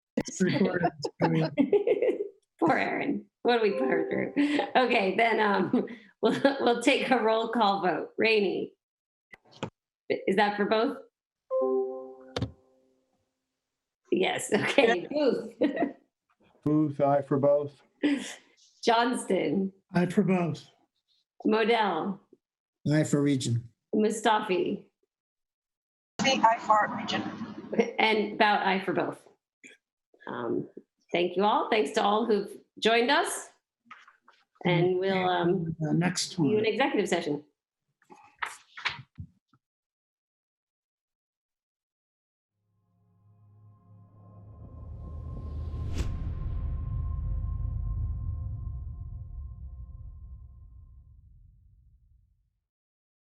It's recorded. I mean, Poor Erin. What do we put her through? Okay, then um, we'll we'll take a roll call vote. Rainey. Is that for both? Yes, okay. Booth. Booth, aye for both. Johnston, I for both. Modell, Aye for region. Mustafi, The IFAR region. and Bout I for both. Um, thank you all. Thanks to all who've joined us. And we'll um, Uh, Next see you one. in executive session.